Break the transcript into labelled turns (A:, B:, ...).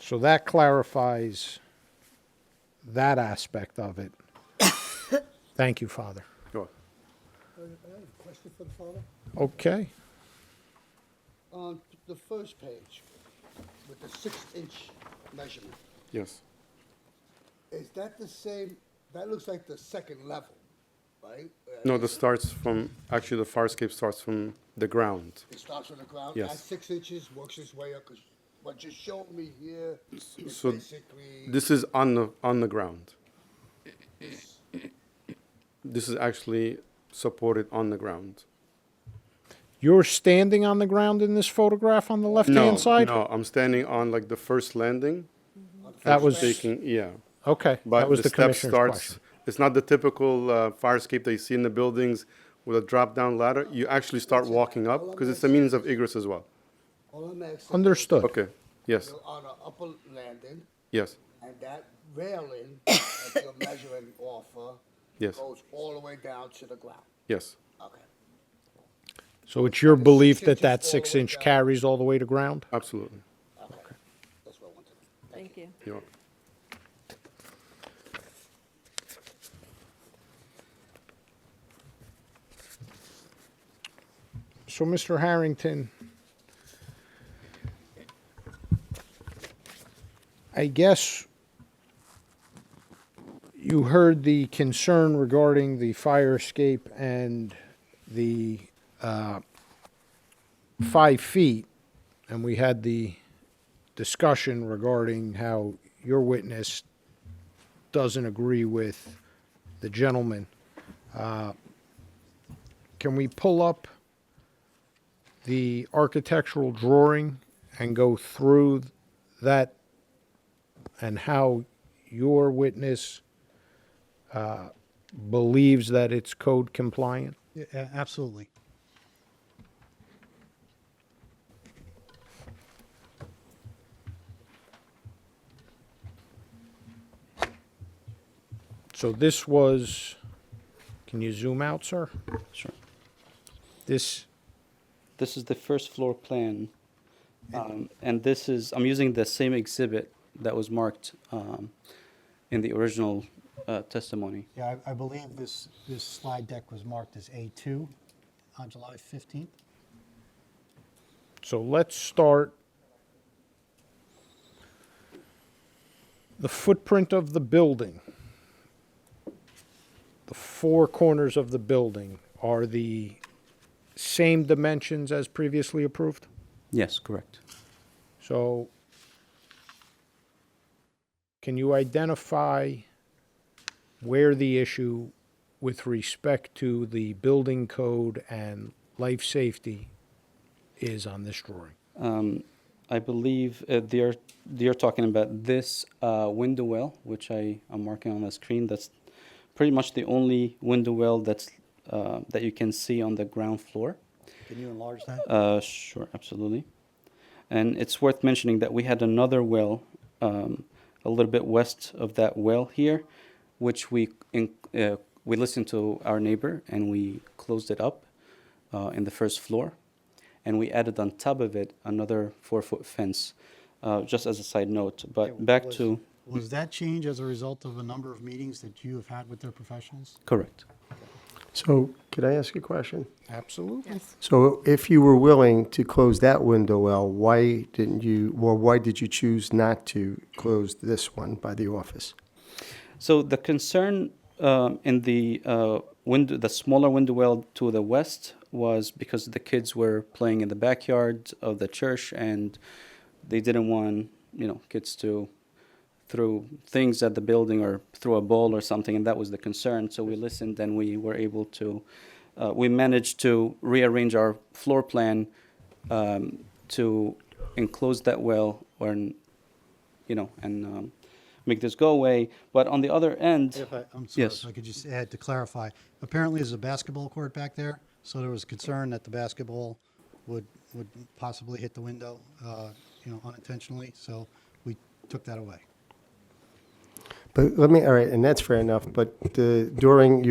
A: So that clarifies that aspect of it. Thank you, Father.
B: Go on.
C: Question for the father?
A: Okay.
C: On the first page, with the six-inch measurement,
B: Yes.
C: is that the same, that looks like the second level, right? Uh,
B: No, this starts from, actually, the fire escape starts from the ground.
C: It starts on the ground,
B: Yes.
C: at six inches, works its way up, 'cause what you showed me here is
B: so
C: basically,
B: This is on the, on the ground. This is actually supported on the ground.
A: You're standing on the ground in this photograph on the
B: No,
A: left-hand side?
B: no, I'm standing on like the first landing.
A: That was,
B: Taking, yeah.
A: okay, that
B: But
A: was
B: the
A: the
B: step
A: commissioner's
B: starts,
A: question.
B: it's not the typical uh, fire escape that you see in the buildings with a drop-down ladder. You actually start walking up because it's a means of egress as well.
C: all I'm asking. is
A: Understood.
B: Okay, yes,
C: You're on an upper landing,
B: yes,
C: and that railing that you're measuring off of.
B: Yes.
C: Goes all the way down to the ground,
B: yes,
C: okay.
A: So it's your belief that
C: inches
A: that
C: all the way
A: six-inch
C: down.
A: carries all the way to ground?
B: absolutely.
C: Okay. That's what I wanted.
D: Thank you.
B: You're welcome.
A: So, Mr. Harrington, I guess you heard the concern regarding the fire escape and the uh, five feet, and we had the discussion regarding how your witness doesn't agree with the gentleman. Uh, Can we pull up? the architectural drawing and go through that and how your witness uh, believes that it's code compliant?
E: Yeah, a- absolutely.
A: So this was, can you zoom out, sir?
F: Sure.
A: This,
F: This is the first floor plan. Um, and this is, I'm using the same exhibit that was marked um, in the original uh, testimony.
E: Yeah, I, I believe this, this slide deck was marked as A2 on July 15th.
A: so let's start. The footprint of the building, the four corners of the building are the same dimensions as previously approved?
F: Yes, correct.
A: So can you identify where the issue with respect to the building code and life safety is on this drawing?
F: Um, I believe uh, they're, they're talking about this uh, window well, which I am marking on the screen. That's pretty much the only window well that's, uh, that you can see on the ground floor.
E: Can you enlarge that?
F: Uh, sure, absolutely. And it's worth mentioning that we had another well um, a little bit west of that well here, which we in, uh, we listened to our neighbor and we closed it up uh, in the first floor, and we added on top of it another four foot fence. Uh, just as a side note, but back
E: Was-
F: to
E: Was that change as a result of a number of meetings that you have had with their professionals?
F: correct.
G: So could I ask a question?
A: Absolutely.
D: Yes.
G: So if you were willing to close that window well, why didn't you, or why did you choose not to close this one by the office?
F: So the concern um, in the uh, window, the smaller window well to the west, was because the kids were playing in the backyard of the church, and they didn't want you know kids to throw things at the building or throw a ball or something, and that was the concern. So we listened, and we were able to, uh, we managed to rearrange our floor plan um, to enclose that well or you know, and um, make this go away. But on the other end,
E: If I, I'm sorry,
F: Yes.
E: if I could just add to clarify, apparently there's a basketball court back there, so there was concern that the basketball would, would possibly hit the window, uh, you know, unintentionally, so we took that away.
G: But let me, all right, and that's fair enough, but uh, during